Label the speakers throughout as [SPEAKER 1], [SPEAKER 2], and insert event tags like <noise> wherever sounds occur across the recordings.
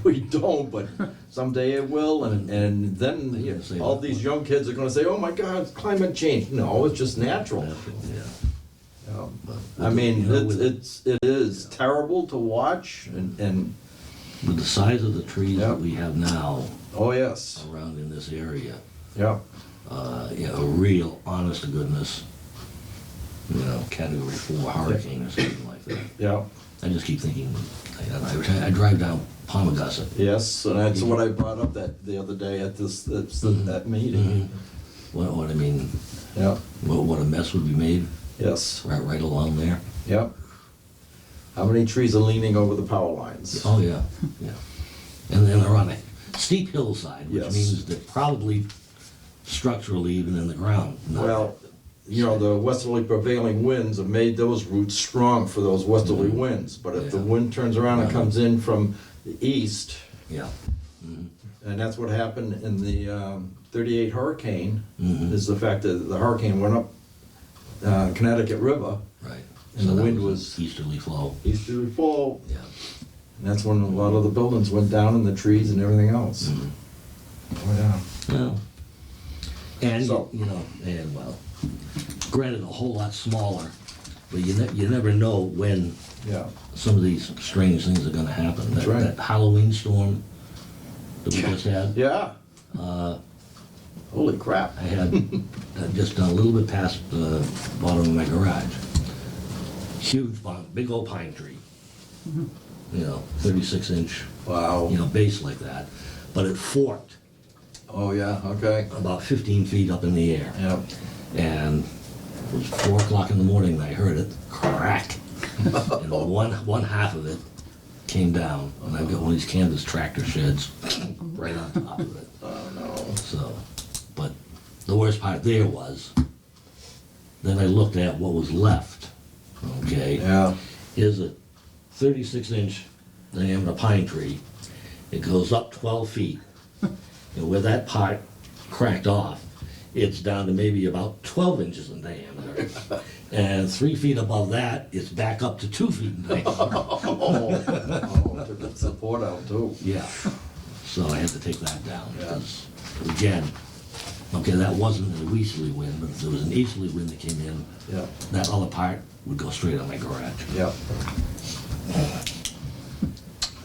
[SPEAKER 1] <laughs> we don't, but someday it will, and, and then yes, all these young kids are gonna say, oh my God, it's climate change. No, it's just natural.
[SPEAKER 2] Yeah.
[SPEAKER 1] Um, I
[SPEAKER 2] But with the- you
[SPEAKER 1] mean,
[SPEAKER 2] know,
[SPEAKER 1] it's,
[SPEAKER 2] with-
[SPEAKER 1] it's, it is terrible to watch and, and,
[SPEAKER 2] With the size of the trees
[SPEAKER 1] Yeah.
[SPEAKER 2] that we have now
[SPEAKER 1] oh yes,
[SPEAKER 2] around in this area,
[SPEAKER 1] yeah.
[SPEAKER 2] uh, you know, a real honest to goodness, you know, category four hurricane or something like that.
[SPEAKER 1] Yeah,
[SPEAKER 2] I just keep thinking, I, I, I drive down Palmagussit.
[SPEAKER 1] yes, and that's what I brought up that, the other day at this, that's the-
[SPEAKER 2] Mm-hmm.
[SPEAKER 1] that meeting.
[SPEAKER 2] What, what I mean,
[SPEAKER 1] Yeah,
[SPEAKER 2] what, what a mess would be made
[SPEAKER 1] yes,
[SPEAKER 2] right, right along there.
[SPEAKER 1] yeah. How many trees are leaning over the power lines?
[SPEAKER 2] Oh, yeah, yeah. And then they're on a steep hillside, which
[SPEAKER 1] Yes.
[SPEAKER 2] means they're probably structurally even in the ground. not-
[SPEAKER 1] Well, you know, the westerly prevailing winds have made those roots strong for those westerly winds. But if the
[SPEAKER 2] Mm-hmm. Yeah.
[SPEAKER 1] wind turns around and comes in from the east,
[SPEAKER 2] Yeah, Mm-hmm.
[SPEAKER 1] and that's what happened in the um, 38 hurricane,
[SPEAKER 2] Mhm.
[SPEAKER 1] is the fact that the hurricane went up uh, Connecticut River,
[SPEAKER 2] right.
[SPEAKER 1] And
[SPEAKER 2] So
[SPEAKER 1] the
[SPEAKER 2] that
[SPEAKER 1] wind
[SPEAKER 2] an
[SPEAKER 1] was-
[SPEAKER 2] Easterly flow,
[SPEAKER 1] easterly fall,
[SPEAKER 2] yeah.
[SPEAKER 1] and that's when a lot of the buildings went down and the trees and everything else.
[SPEAKER 2] Mhm.
[SPEAKER 1] Oh, yeah.
[SPEAKER 2] Well, And,
[SPEAKER 1] So-
[SPEAKER 2] you know, and well, granted, a whole lot smaller, but you ne- you never know when
[SPEAKER 1] Yeah,
[SPEAKER 2] some of these strange things are gonna happen.
[SPEAKER 1] That's
[SPEAKER 2] That-
[SPEAKER 1] right.
[SPEAKER 2] That Halloween storm that we just had,
[SPEAKER 1] yeah. Holy crap.
[SPEAKER 2] Uh, I <laughs> had uh, just a little bit past the bottom of my garage. Huge, pine- big old pine tree. You know, thirty-six inch, you
[SPEAKER 1] Wow.
[SPEAKER 2] know, base like that, but it forked
[SPEAKER 1] Oh, yeah, okay.
[SPEAKER 2] about fifteen feet up in the air.
[SPEAKER 1] Yeah.
[SPEAKER 2] and it was four o'clock in the morning and I heard it
[SPEAKER 1] <laughs>
[SPEAKER 2] crack. and one one half of it came down, and I've got one of these canvas tractor sheds <laughs> right on top of it.
[SPEAKER 1] Oh, no.
[SPEAKER 2] So, but the worst part there was, then I looked at what was left. Okay,
[SPEAKER 1] Yeah.
[SPEAKER 2] is a 36 inch diameter pine tree. It goes up 12 feet. And where that part cracked off, it's down to maybe about 12 inches in diameter. And three feet above that, it's back up to two feet in diameter.
[SPEAKER 1] Oh, took the support out too.
[SPEAKER 2] Yeah. So I had to take that down. because, Again, okay, that wasn't an easterly wind, but if there was an easterly wind that came in,
[SPEAKER 1] Yeah,
[SPEAKER 2] that other part would go straight on my garage.
[SPEAKER 1] yeah.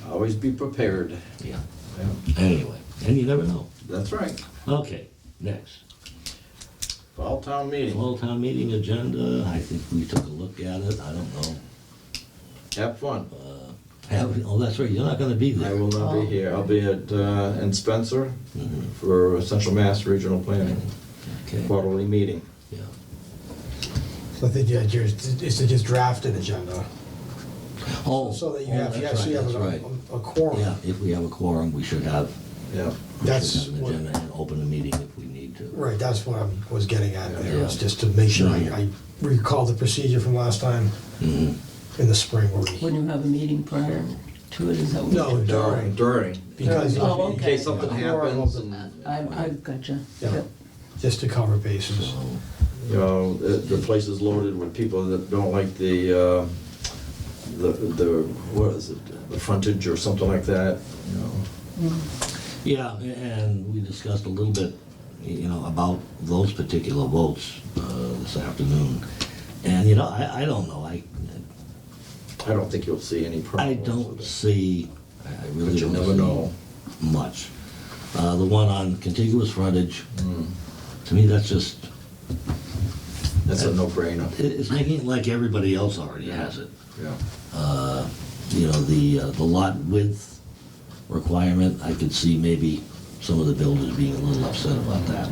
[SPEAKER 1] Always be prepared.
[SPEAKER 2] Yeah.
[SPEAKER 1] Yeah,
[SPEAKER 2] Anyway, and you never know.
[SPEAKER 1] That's right.
[SPEAKER 2] Okay, next.
[SPEAKER 1] Fall town meeting.
[SPEAKER 2] Fall town meeting agenda, I think we took a look at it, I don't know.
[SPEAKER 1] Have fun.
[SPEAKER 2] Have- Oh, that's right, you're not gonna be
[SPEAKER 1] I
[SPEAKER 2] there.
[SPEAKER 1] will not be here. I'll be at, uh, in Spencer
[SPEAKER 2] Mhm,
[SPEAKER 3] Mm-hmm.
[SPEAKER 1] for Central Mass Regional Planning
[SPEAKER 2] Okay,
[SPEAKER 1] quarterly meeting.
[SPEAKER 2] yeah.
[SPEAKER 4] So I think, yeah, yours is to just draft an agenda,
[SPEAKER 2] Oh.
[SPEAKER 4] so that you
[SPEAKER 2] oh,
[SPEAKER 4] have, you
[SPEAKER 2] that's
[SPEAKER 4] actually
[SPEAKER 2] right,
[SPEAKER 4] have
[SPEAKER 2] That's right.
[SPEAKER 4] a- a a quorum.
[SPEAKER 2] Yeah, if we have a quorum, we should have,
[SPEAKER 1] Yeah,
[SPEAKER 2] we
[SPEAKER 4] That's
[SPEAKER 2] should have an
[SPEAKER 4] what,
[SPEAKER 2] agenda and open a meeting if we need to.
[SPEAKER 4] right, that's what I was getting at there, was
[SPEAKER 2] Yeah.
[SPEAKER 4] just to make sure I
[SPEAKER 2] Yeah.
[SPEAKER 4] I recall the procedure from last time
[SPEAKER 2] Mhm.
[SPEAKER 4] in the spring where we,
[SPEAKER 3] When you have a meeting prior to it, is that what?
[SPEAKER 4] no,
[SPEAKER 1] during,
[SPEAKER 4] during,
[SPEAKER 1] during.
[SPEAKER 4] because.
[SPEAKER 3] Oh,
[SPEAKER 4] you-
[SPEAKER 1] In
[SPEAKER 3] okay.
[SPEAKER 1] case something happens and,
[SPEAKER 3] I, I gotcha.
[SPEAKER 4] Yeah.
[SPEAKER 3] Yep.
[SPEAKER 4] Just to cover bases.
[SPEAKER 2] So,
[SPEAKER 1] you know, the the place is loaded with people that don't like the, uh, the, the, what is it? The frontage or something like that, you know?
[SPEAKER 2] Yeah, a- and we discussed a little bit, y- you know, about those particular votes uh, this afternoon. And, you know, I, I don't know, I,
[SPEAKER 1] I don't think you'll see any
[SPEAKER 2] I
[SPEAKER 1] problems.
[SPEAKER 2] don't
[SPEAKER 1] with
[SPEAKER 2] see, I I
[SPEAKER 1] it.
[SPEAKER 2] really
[SPEAKER 1] But you
[SPEAKER 2] don't
[SPEAKER 1] never
[SPEAKER 2] see
[SPEAKER 1] know.
[SPEAKER 2] much. Uh, the one on contiguous frontage,
[SPEAKER 1] Mm.
[SPEAKER 2] to me, that's just,
[SPEAKER 1] That's a no-brainer.
[SPEAKER 2] it- it's making it like everybody else already has it.
[SPEAKER 1] Yeah.
[SPEAKER 2] Uh, You know, the, uh, the lot width requirement, I could see maybe some of the builders being a little upset about that.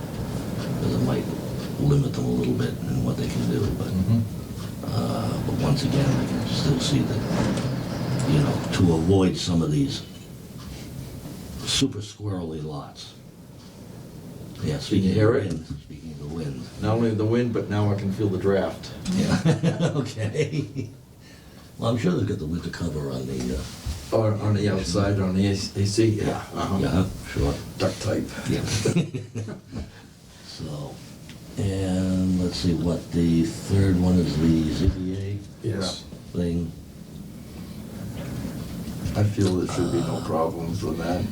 [SPEAKER 2] Because it might limit them a little bit in what they can do, but,
[SPEAKER 1] Mm-hmm.
[SPEAKER 2] uh, but once again, I can still see that, you know, to avoid some of these super squirrely lots. Yeah, speaking of
[SPEAKER 1] hear
[SPEAKER 2] the
[SPEAKER 1] it?
[SPEAKER 2] wind, speaking of the wind.
[SPEAKER 1] Not only the wind, but now I can feel the draft.
[SPEAKER 2] Yeah, <laughs> okay. Well, I'm sure they've got the winter cover on the, uh,
[SPEAKER 1] Or on the outside, on the AC, yeah, uh-huh.
[SPEAKER 2] yeah, sure.
[SPEAKER 1] duct tape.
[SPEAKER 2] Yeah. <laughs> So, and let's see, what, the third one is the ZBA
[SPEAKER 4] Yes.
[SPEAKER 2] thing?
[SPEAKER 1] I feel there should be no problem for that.